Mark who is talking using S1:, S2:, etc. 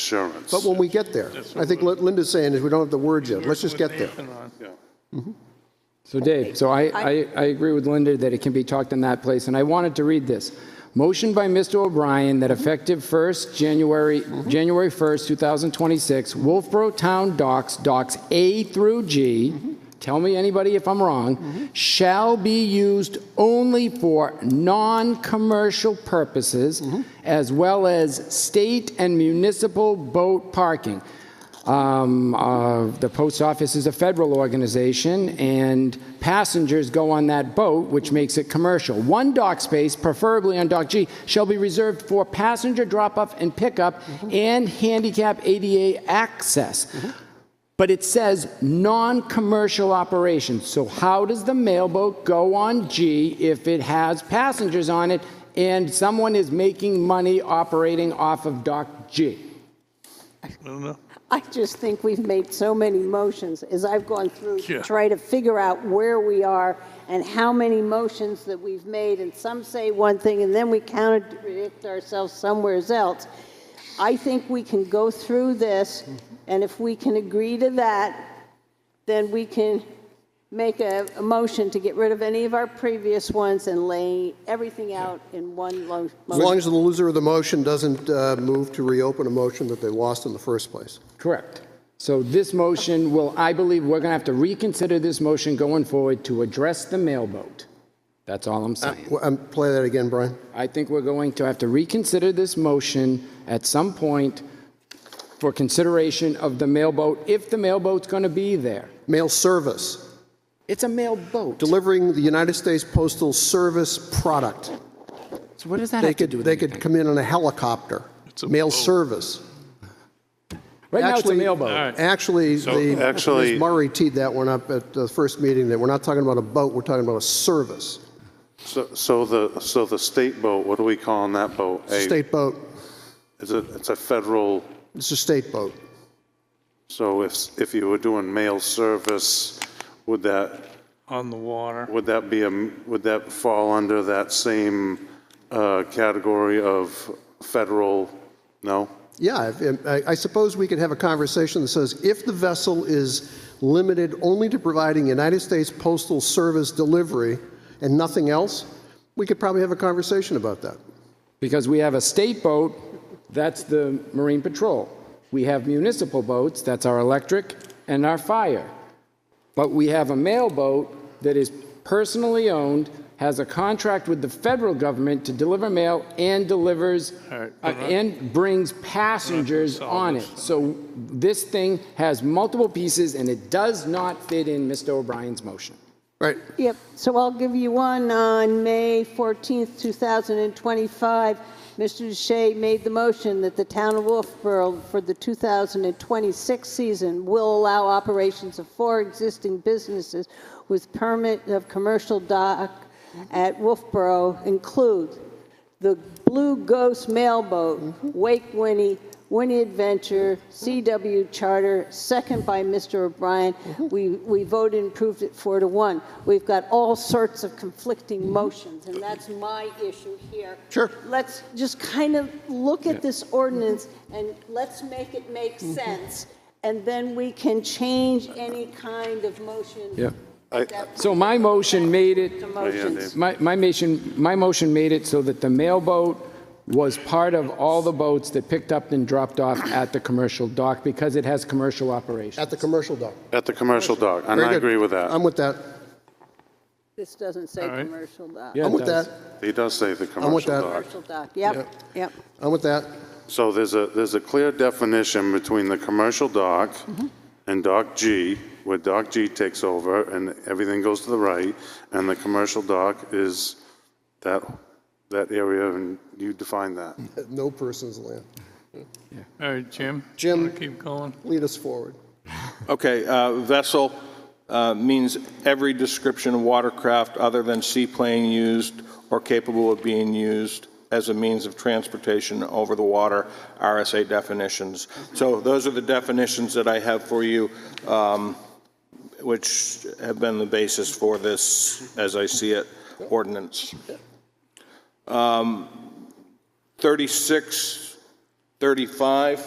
S1: insurance.
S2: But when we get there, I think what Linda's saying is we don't have the words yet. Let's just get there.
S1: Yeah.
S3: So Dave, so I, I, I agree with Linda that it can be talked in that place, and I wanted to read this. Motion by Mr. O'Brien that effective 1st, January, January 1st, 2026, Wolfboro Town docks, docks A through G, tell me anybody if I'm wrong, shall be used only for non-commercial purposes, as well as state and municipal boat parking. Um, uh, The post office is a federal organization, and passengers go on that boat, which makes it commercial. One dock space, preferably on Dock G, shall be reserved for passenger drop-off and pickup and handicap ADA access. But it says non-commercial operations. So how does the mailboat go on G if it has passengers on it and someone is making money operating off of Dock G?
S4: I just think we've made so many motions as I've gone through
S1: Yeah.
S4: to try to figure out where we are and how many motions that we've made, and some say one thing, and then we contradict ourselves somewhere else. I think we can go through this, and if we can agree to that, then we can make a, a motion to get rid of any of our previous ones and lay everything out in one lo-
S2: As long
S4: motion.
S2: as the loser of the motion doesn't uh, move to reopen a motion that they lost in the first place.
S3: Correct. So this motion will, I believe, we're going to have to reconsider this motion going forward to address the mailboat. That's all I'm saying.
S2: Well, um, Play that again, Brian.
S3: I think we're going to have to reconsider this motion at some point for consideration of the mailboat, if the mailboat's going to be there.
S2: Mail service,
S3: It's a mailboat.
S2: delivering the United States Postal Service product.
S3: So what does that
S2: They
S3: have to
S2: could,
S3: do with
S2: they could
S3: anything?
S2: come in on a helicopter. Mail service.
S3: Right now, it's a
S2: Actually-
S3: mailboat.
S2: Actually, the,
S1: actually-
S2: Ms. Murray teed that one up at the first meeting, that we're not talking about a boat, we're talking about a service,
S1: So, so the, so the state boat, what do we call that boat?
S2: It's a state boat.
S1: Is it, it's a federal,
S2: It's a state boat.
S1: so if, if you were doing mail service, would that,
S5: on the water.
S1: would that be, a m- would that fall under that same uh, category of federal, no?
S2: Yeah, if- I I suppose we could have a conversation that says, if the vessel is limited only to providing United States Postal Service delivery and nothing else, we could probably have a conversation about that.
S3: Because we have a state boat, that's the Marine Patrol. We have municipal boats, that's our electric and our fire. But we have a mail boat that is personally owned, has a contract with the federal government to deliver mail and delivers,
S5: right,
S3: uh, and brings passengers on it. So this thing has multiple pieces and it does not fit in Mr. O'Brien's motion.
S2: Right.
S4: Yep, so I'll give you one on May 14th, 2025. Mr. Shea made the motion that the town of Wolfboro for the 2026 season will allow operations of four existing businesses with permit of commercial dock at Wolfboro include the Blue Ghost Mailboat,
S3: Mm-hmm.
S4: Wake Winnie, Winnie Adventure, CW Charter, second by Mr. O'Brien.
S3: Mm-hmm.
S4: We, we voted and approved it four to one. We've got all sorts of
S3: Mm-hmm.
S4: conflicting motions, and that's my issue here.
S2: Sure.
S4: Let's just kind of look at this ordinance and let's make it make
S3: Mm-hmm.
S4: sense, and then we can change any kind of motion.
S3: Yeah.
S1: I-
S4: that-
S3: So my motion made it-
S4: To motions.
S3: My, my motion, my motion made it so that the mailboat was part of all the boats that picked up and dropped off at the commercial dock because it has commercial operation.
S2: At the commercial dock.
S1: At the commercial dock, and
S2: Very
S1: I
S2: good.
S1: agree with that.
S2: I'm with that.
S4: This doesn't say
S5: right.
S4: commercial dock.
S3: Yeah, it
S2: I'm with
S3: does.
S2: that.
S1: He does say the commercial
S2: that.
S1: dock.
S4: Commercial dock, yep, yep.
S2: I'm with that.
S1: So there's a, there's a clear definition between the commercial dock and Dock G, where Dock G takes over and everything goes to the right, and the commercial dock is that, that area, and you define that.
S2: No person's land.
S5: All right, Jim?
S2: Jim.
S5: Wanna Keep going.
S2: Lead us forward.
S6: Okay, uh, vessel uh, means every description of watercraft other than seaplane used or capable of being used as a means of transportation over the water, RSA definitions. So those are the definitions that I have for you, um, which have been the basis for this, as I see it, ordinance. Um, 36, 35,